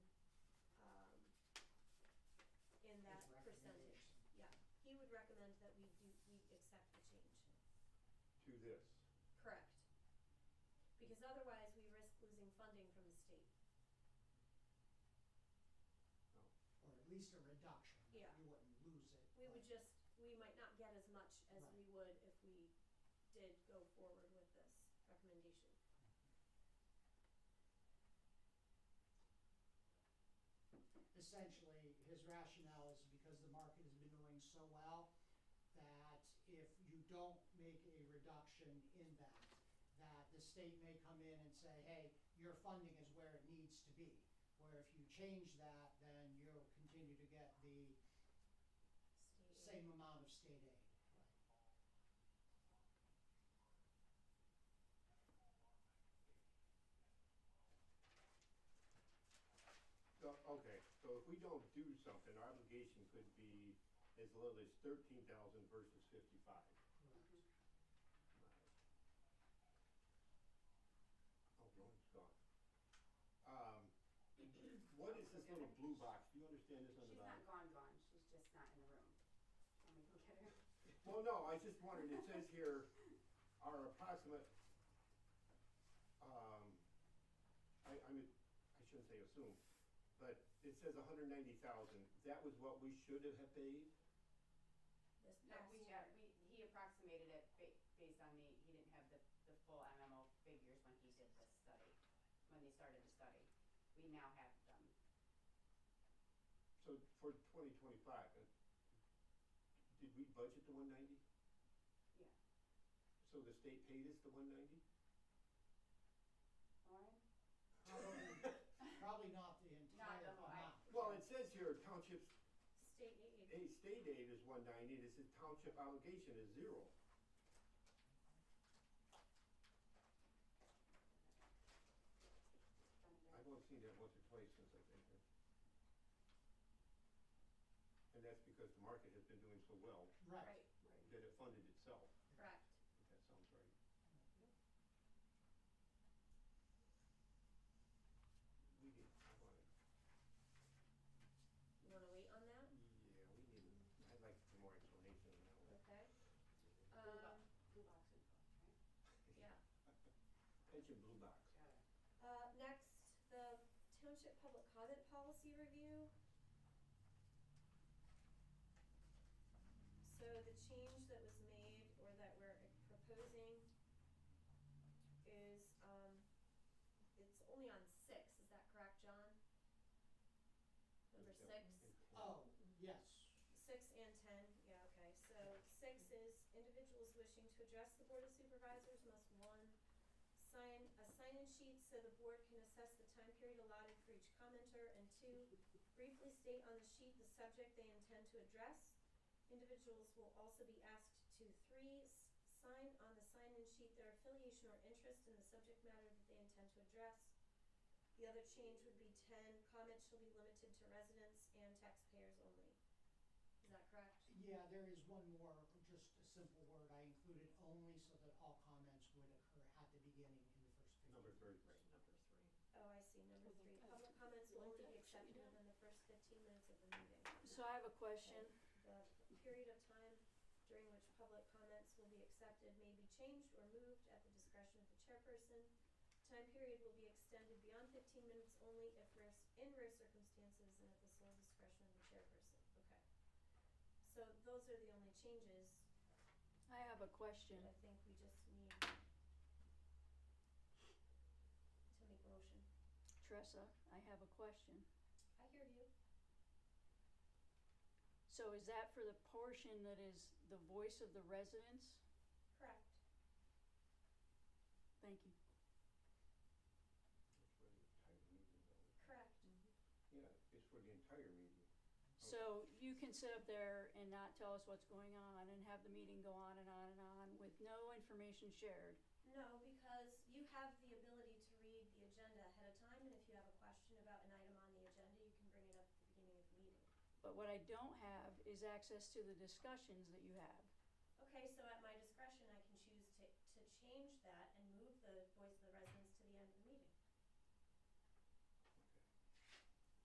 um, to this. Correct. Because otherwise, we risk losing funding from the state. or at least a reduction. Yeah. You wouldn't lose it. We would but- just, we might not get as much as Right. we would if we did go forward with this recommendation. Essentially, his rationale is because the market has been doing so well that if you don't make a reduction in that, that the state may come in and say, hey, your funding is where it needs to be. Where if you change that, then you'll continue to get the State aid. same amount of state aid. So, okay, so if we don't do something, our obligation could be as little as thirteen thousand versus fifty-five. Correct. Oh, Roland's gone. Um, what is this little blue box? Do you understand this on the She's bottom? not gone, gone, she's just not in the room. Let me go get her. Well, no, I just wondered, it says here, our approximate, um, I, I mean, I shouldn't say assume, but it says hundred ninety thousand, that was what we should have paid? This No, past we year. have, we, he approximated it ba- based on the, he didn't have the, the full MMO figures when he did the study, when they started the study. We now have them. So for twenty twenty-five, uh, did we budget the one ninety? Yeah. So the state paid us the one ninety? Lauren? Probably, probably not the entire the whole- I- amount. Well, it says here township's, State aid. a state aid is one ninety, and it says township obligation is zero. I've only seen that once or twice since I've been here. And that's because the market has been doing so well Right, that it funded itself, correct. if that sounds right. We need, I want You wanna wait on that? yeah, we need, I'd like some more explanation on Okay. that one. Um, Blue box info, right? yeah. Pension blue box. Got it. Uh, next, the township public comment policy review. So the change that was made or that we're proposing is, um, it's only on six, is that correct, John? Number six? Oh, yes. Six and ten, yeah, okay, so six is individuals wishing to address the Board of Supervisors must, one, sign a sign-in sheet so the board can assess the time period allotted for each commenter, and two, briefly state on the sheet the subject they intend to address. Individuals will also be asked to, three, s- sign on the sign-in sheet their affiliation or interest in the subject matter that they intend to address. The other change would be ten, comments shall be limited to residents and taxpayers only. Is that correct? Yeah, there is one more, just a simple word, I included only so that all comments would occur at the beginning in the first fifteen. Number three. Right, number three. Oh, I see, number three, Well, public that's comments will only be like that, should accepted be done. within the first fifteen minutes of the meeting. So I have a question. The period of time during which public comments will be accepted may be changed or moved at the discretion of the chairperson. Time period will be extended beyond fifteen minutes only if rare, s- in rare circumstances and at the sole discretion of the chairperson, okay. So those are the only changes, I have a question. I think we just need to make motion. Tressa, I have a question. I hear you. So is that for the portion that is the voice of the residents? Correct. Thank you. That's where the entire meeting goes. Correct. Yeah, it's for the entire meeting. Oh. So you can sit up there and not tell us what's going on and have the meeting go on and on and on with no information shared? No, because you have the ability to read the agenda ahead of time, and if you have a question about an item on the agenda, you can bring it up at the beginning of the meeting. But what I don't have is access to the discussions that you have. Okay, so at my discretion, I